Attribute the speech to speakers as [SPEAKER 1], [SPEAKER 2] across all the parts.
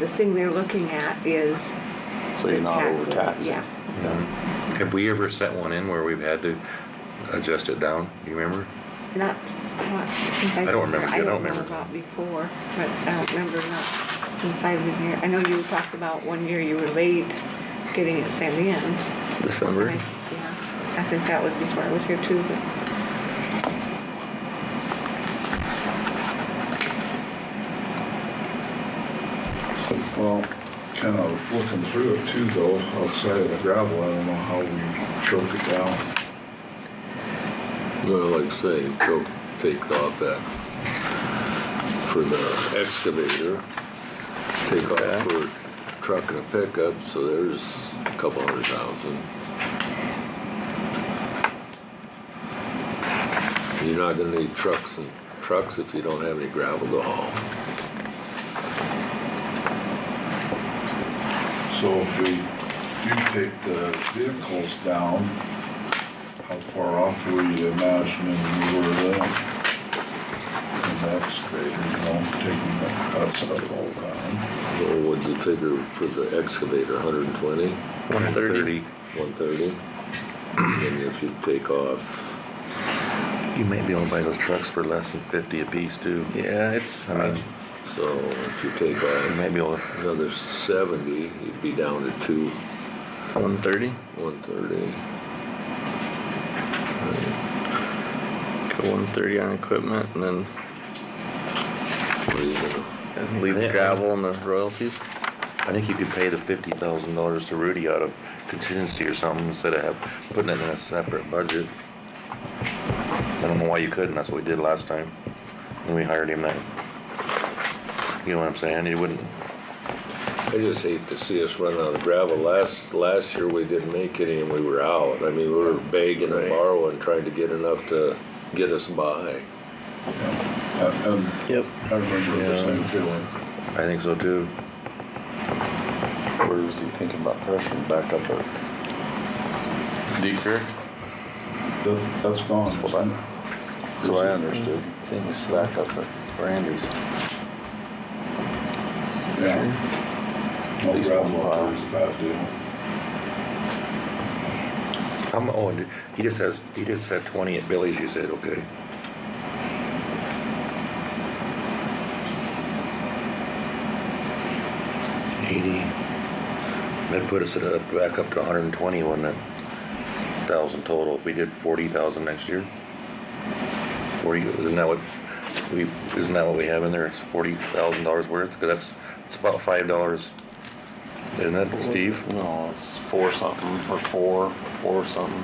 [SPEAKER 1] The thing they're looking at is
[SPEAKER 2] So you're not
[SPEAKER 1] tax-
[SPEAKER 2] overtaxing.
[SPEAKER 1] Yeah.
[SPEAKER 3] Have we ever set one in where we've had to adjust it down? You remember?
[SPEAKER 1] Not, not since I've.
[SPEAKER 3] I don't remember,
[SPEAKER 1] been here.
[SPEAKER 3] I don't
[SPEAKER 1] know
[SPEAKER 3] remember.
[SPEAKER 1] about before, but I don't remember not since I've been here. I know you talked about one year you were late getting it sent in. And I-
[SPEAKER 4] December.
[SPEAKER 1] Yeah, I think that was before I was here too, but
[SPEAKER 5] Well, kind of looking through it too though, outside of the gravel, I don't know how we choke it down.
[SPEAKER 6] Well, like I say, go take off that for the excavator. Take off for truck and a pickup, so there's a couple hundred thousand. You're not gonna need trucks and trucks if you don't have any gravel to haul.
[SPEAKER 5] So if we do take the vehicles down, how far off were you imagining we were then? And that's great, you know, taking that, that's all down.
[SPEAKER 6] Well, what'd you figure for the excavator, hundred and twenty?
[SPEAKER 3] One thirty.
[SPEAKER 6] One thirty. And if you take off,
[SPEAKER 2] You might be able to buy those trucks for less than fifty apiece too.
[SPEAKER 4] Yeah, it's, I mean,
[SPEAKER 6] so if you take
[SPEAKER 2] You
[SPEAKER 6] off
[SPEAKER 2] might be able to,
[SPEAKER 6] another seventy, you'd be down to two,
[SPEAKER 4] uh, one thirty,
[SPEAKER 6] one thirty.
[SPEAKER 4] go one thirty on equipment and then
[SPEAKER 6] What are you gonna,
[SPEAKER 4] and leave the gravel and the royalties.
[SPEAKER 2] I think you could pay the fifty thousand dollars to Rudy out of contingency or something instead of have, putting it in a separate budget. I don't know why you couldn't, that's what we did last time, when we hired him that. You know what I'm saying, he wouldn't,
[SPEAKER 6] I just hate to see us run out of gravel. Last, last year we didn't make any and we were out. I mean, we were begging and borrowing, trying to get enough to get us by.
[SPEAKER 5] And
[SPEAKER 4] Yep.
[SPEAKER 5] I remember the same feeling.
[SPEAKER 2] I think so too.
[SPEAKER 7] Where was he thinking about pressuring back up at Deep Creek?
[SPEAKER 5] That- That's gone,
[SPEAKER 7] Well,
[SPEAKER 5] isn't it?
[SPEAKER 7] that, so I understood. Things back up at Randy's.
[SPEAKER 5] Yeah.
[SPEAKER 7] At
[SPEAKER 5] No
[SPEAKER 7] least one
[SPEAKER 5] gravel
[SPEAKER 7] mile.
[SPEAKER 5] up there is a bad deal.
[SPEAKER 2] How mu- oh, and he just has, he just said twenty at Billy's, you said, okay. Eighty. That put us at, a- back up to hundred and twenty, wouldn't it? Thousand total, if we did forty thousand next year. Forty, isn't that what, we, isn't that what we have in there, it's forty thousand dollars worth, cause that's, it's about five dollars. Isn't it, Steve?
[SPEAKER 7] No, it's four something, or four, four something.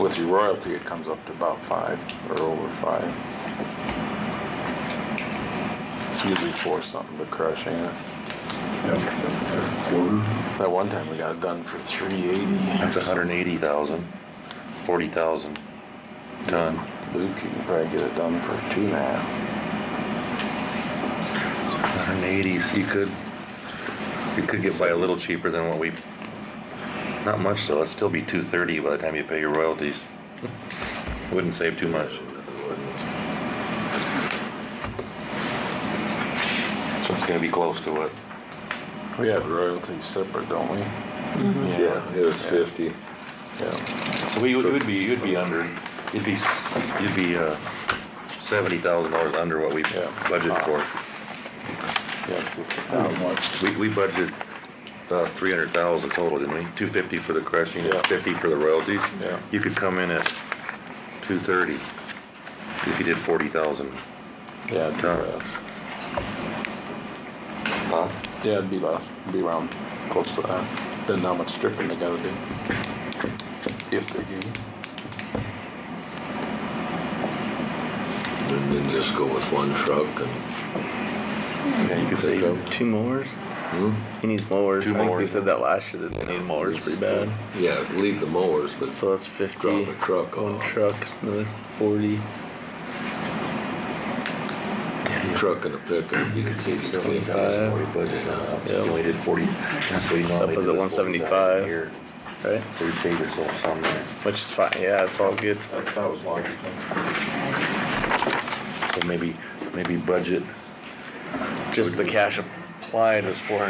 [SPEAKER 7] With your royalty, it comes up to about five, or over five. It's usually four something, but crushing it.
[SPEAKER 5] Yeah, quarter.
[SPEAKER 7] That one time we got it done for three eighty.
[SPEAKER 2] That's a hundred and eighty thousand, forty thousand ton.
[SPEAKER 7] Luke, you can probably get it done for two and a half.
[SPEAKER 2] Hundred and eighty, so you could, you could get by a little cheaper than what we, not much though, it'd still be two thirty by the time you pay your royalties. Wouldn't save too much. So it's gonna be close to what?
[SPEAKER 7] We have royalties separate, don't we?
[SPEAKER 6] Yeah, it was fifty.
[SPEAKER 7] Yeah.
[SPEAKER 2] So we, would be, you'd be under, you'd be, you'd be, uh, seventy thousand dollars under what we
[SPEAKER 7] Yeah.
[SPEAKER 2] budgeted for.
[SPEAKER 7] Yeah, fifty
[SPEAKER 5] Not
[SPEAKER 7] thousand.
[SPEAKER 5] much.
[SPEAKER 2] We, we budgeted about three hundred thousand total, didn't we? Two fifty for the crushing,
[SPEAKER 7] Yeah.
[SPEAKER 2] fifty for the royalties.
[SPEAKER 7] Yeah.
[SPEAKER 2] You could come in at two thirty if you did forty thousand.
[SPEAKER 7] Yeah, it'd be
[SPEAKER 2] Done.
[SPEAKER 7] less.
[SPEAKER 2] Huh?
[SPEAKER 7] Yeah, it'd be less, be around close to that. Depending how much stripping they gotta do. If they do.
[SPEAKER 6] And then just go with one truck and,
[SPEAKER 4] Yeah, you could
[SPEAKER 6] There you go.
[SPEAKER 4] say two mowers.
[SPEAKER 7] Hmm?
[SPEAKER 4] He needs mowers.
[SPEAKER 2] Two
[SPEAKER 4] I think they
[SPEAKER 2] mowers.
[SPEAKER 4] said that last year, that they need mowers pretty bad.
[SPEAKER 6] yeah, leave the mowers, but
[SPEAKER 4] So that's fifty.
[SPEAKER 6] drop a truck
[SPEAKER 4] One
[SPEAKER 6] off.
[SPEAKER 4] truck, another forty.
[SPEAKER 6] Truck and a pickup.
[SPEAKER 2] You could save seventy
[SPEAKER 4] 75.
[SPEAKER 2] thousand we budgeted. Yeah, we only did uh, forty. That's what you
[SPEAKER 4] So that
[SPEAKER 2] normally
[SPEAKER 4] puts
[SPEAKER 2] do
[SPEAKER 4] it
[SPEAKER 2] is
[SPEAKER 4] 175.
[SPEAKER 2] 40,000 a year.
[SPEAKER 4] Right?
[SPEAKER 2] So you'd save yourself some there.
[SPEAKER 4] Which is fine. Yeah, it's all good.
[SPEAKER 5] That that was logical.
[SPEAKER 2] So maybe, maybe budget
[SPEAKER 4] Just the cash applied was four hundred